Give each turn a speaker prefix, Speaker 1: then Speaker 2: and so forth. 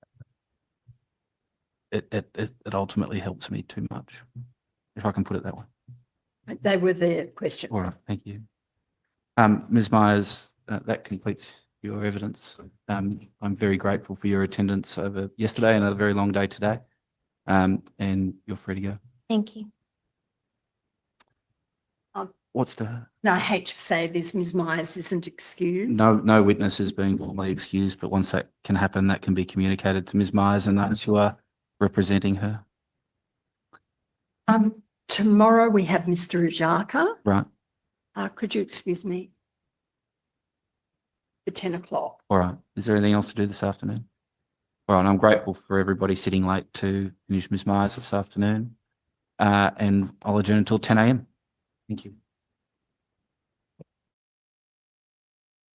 Speaker 1: it, it, it it ultimately helps me too much, if I can put it that way.
Speaker 2: They were their questions.
Speaker 1: All right, thank you. Um, Ms. Myers, uh, that completes your evidence. Um, I'm very grateful for your attendance over yesterday and a very long day today. Um, and you're free to go.
Speaker 3: Thank you.
Speaker 1: What's the,
Speaker 2: Now, I hate to say this, Ms Myers isn't excused.
Speaker 1: no, no witnesses being formally excused, but once that can happen, that can be communicated to Ms. Myers and those who are representing her,
Speaker 2: Um, tomorrow we have Mr Ajaka.
Speaker 1: right?
Speaker 2: Uh, could you excuse me? For ten o'clock.
Speaker 1: All right. Is there anything else to do this afternoon? All right. I'm grateful for everybody sitting late to finish Ms. Myers this afternoon. Uh, and I'll adjourn until ten AM. Thank you.